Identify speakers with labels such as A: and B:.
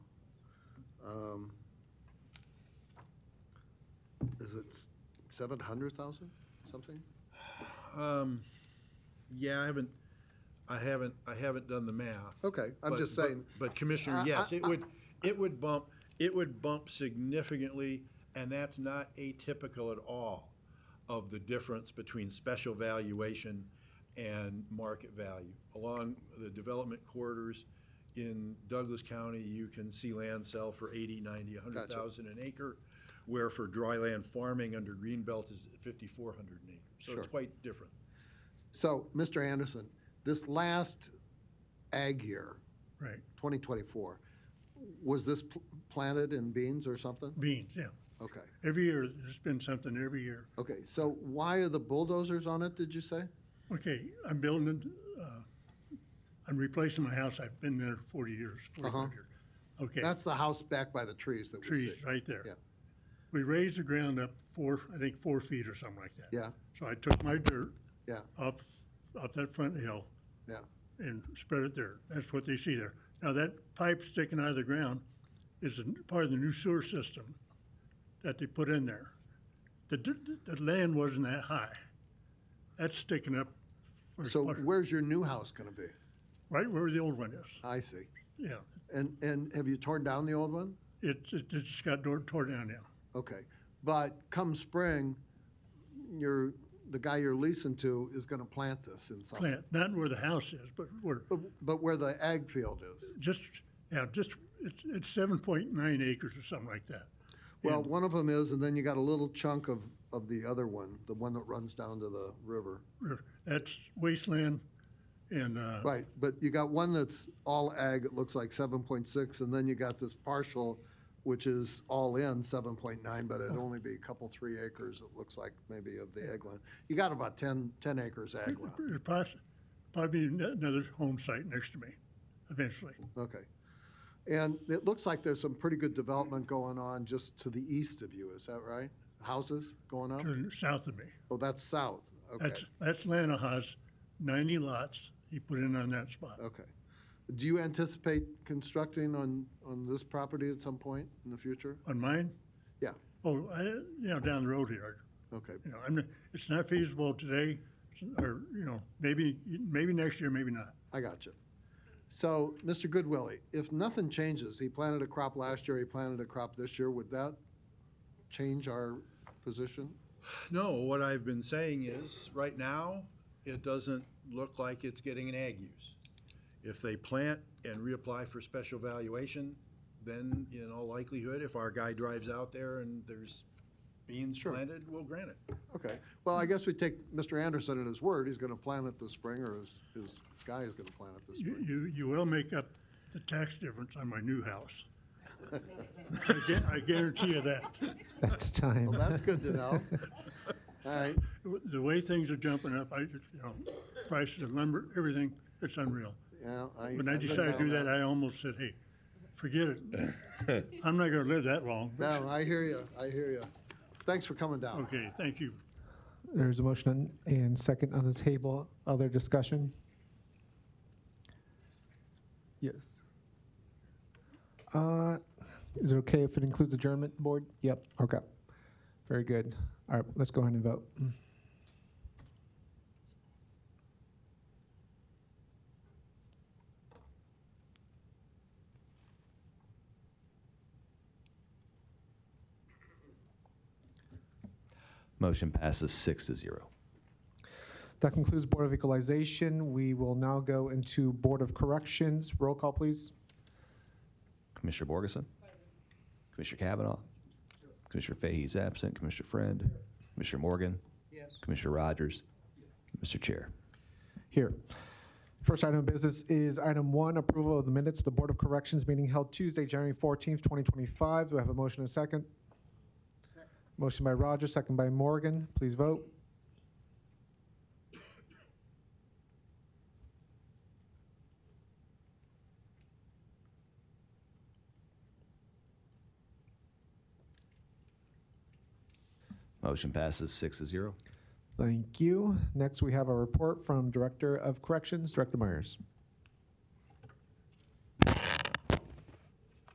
A: um, is it seven hundred thousand, something?
B: Um, yeah, I haven't, I haven't, I haven't done the math.
A: Okay, Oh, I'm
B: But-
A: just
B: but-
A: saying,
B: But Commissioner,
A: Uh,
B: yes,
A: I-
B: it would, it would bump, it would bump significantly, and that's not atypical at all of the difference between special valuation and market value. Along the development corridors in Douglas County, you can see land sell for eighty, ninety, a hundred
A: Gotcha.
B: thousand an acre, where for dry land farming under Greenbelt is fifty-four hundred an acre. So
A: Sure.
B: it's quite different.
A: so, Mr. Anderson, this last ag year,
C: Right,
A: twenty twenty-four, was this pl- planted in beans or something?
C: beans, yeah.
A: Okay,
C: Every year, there's been something every year.
A: okay, so why are the bulldozers on it, did you say?
C: Okay, I'm building, uh, I'm replacing my house. I've been there forty years,
A: Uh-huh.
C: forty-five years. Okay,
A: That's the house back by the trees that we see.
C: trees right there.
A: Yeah.
C: We raised the ground up four, I think, four feet or something like that.
A: Yeah.
C: So I took my dirt.
A: Yeah.
C: Up, up that front hill.
A: Yeah.
C: And spread it there. That's what they see there. Now, that pipe sticking out of the ground is a n- part of the new sewer system that they put in there. The, d- d- the land wasn't that high. That's sticking up. for-
A: So
C: for-
A: where's your new house gonna be?
C: Right where the old one is,
A: I see.
C: yeah.
A: And, and have you torn down the old one?
C: It's, it it just got tore, tore down now.
A: Okay, but come spring, you're, the guy you're leasing to is gonna plant this in something.
C: Plant, not where the house is, but where,
A: But- But where the ag field is.
C: just, yeah, just, it's, it's seven point nine acres or something like that.
A: Well,
C: And-
A: one of them is, and then you got a little chunk of, of the other one, the one that runs down to the river.
C: That's wasteland and, uh,
A: Right, but you got one that's all ag, it looks like seven point six, and then you got this partial, which is all in seven point nine, but it'd only be a couple, three acres, it looks like, maybe of the ag land. You got about 10 10 acres ag land.
C: there's poss- probably an- another home site next to me eventually.
A: Okay. And it looks like there's some pretty good development going on just to the east of you, is that right? Houses going up?
C: to the south of me.
A: Oh, that's south, okay,
C: That's, that's Lanaha's ninety lots he put in on that spot.
A: okay. Do you anticipate constructing on, on this property at some point in the future?
C: On mine?
A: Yeah.
C: Oh, I, you know, down the road here,
A: Okay,
C: you know, I'm, not- it's not feasible today, or, you know, maybe, maybe next year, maybe not.
A: I got you. So, Mr. Goodwillie, if nothing changes, he planted a crop last year, he planted a crop this year, would that change our position?
B: No, what I've been saying is, right now, it doesn't look like it's getting an ag use. If they plant and reapply for special valuation, then in all likelihood, if our guy drives out there and there's beans
A: Sure.
B: planted, we'll grant it.
A: Okay, well, I guess we take Mr. Anderson at his word, he's gonna plant it this spring, or his, his guy is gonna plant it this
C: You,
A: spring.
C: you, you will make up the tax difference on my new house. I gu- I guarantee you that.
D: That's time.
A: Well, that's good to know. All right,
C: The way things are jumping up, I, just, you know, prices of lumber, everything, it's unreal.
A: yeah, I.
C: When I
A: I've been
C: decided to do
A: down
C: that, I almost said, hey, forget it. I'm not gonna live that long.
A: there. No, I hear you, I hear you. Thanks for coming down.
C: Okay, thank you.
D: There's a motion on- and second on the table. Other discussion? Yes. Uh, Is it okay if it includes adjournment, board? Yep, okay. Very good. All right, let's go ahead and vote.
E: Motion passes six to zero.
D: That concludes Board of Equalization. We will now go into Board of Corrections. Roll call, please.
E: Commissioner Borgeson? Commissioner Kavanaugh? Commissioner Fahey is absent. Commissioner Friend? Commissioner Morgan? Yes. Commissioner Rogers? Mr. Chair.
D: Here. First item of business is item one, approval of the minutes, of the Board of Corrections meeting held Tuesday, January 14th, 2025. Do I have a motion and a second? Motion by Rogers, second by Morgan. Please vote.
E: Motion passes six to zero.
D: Thank you. Next, we have a report from Director of Corrections, Director Myers.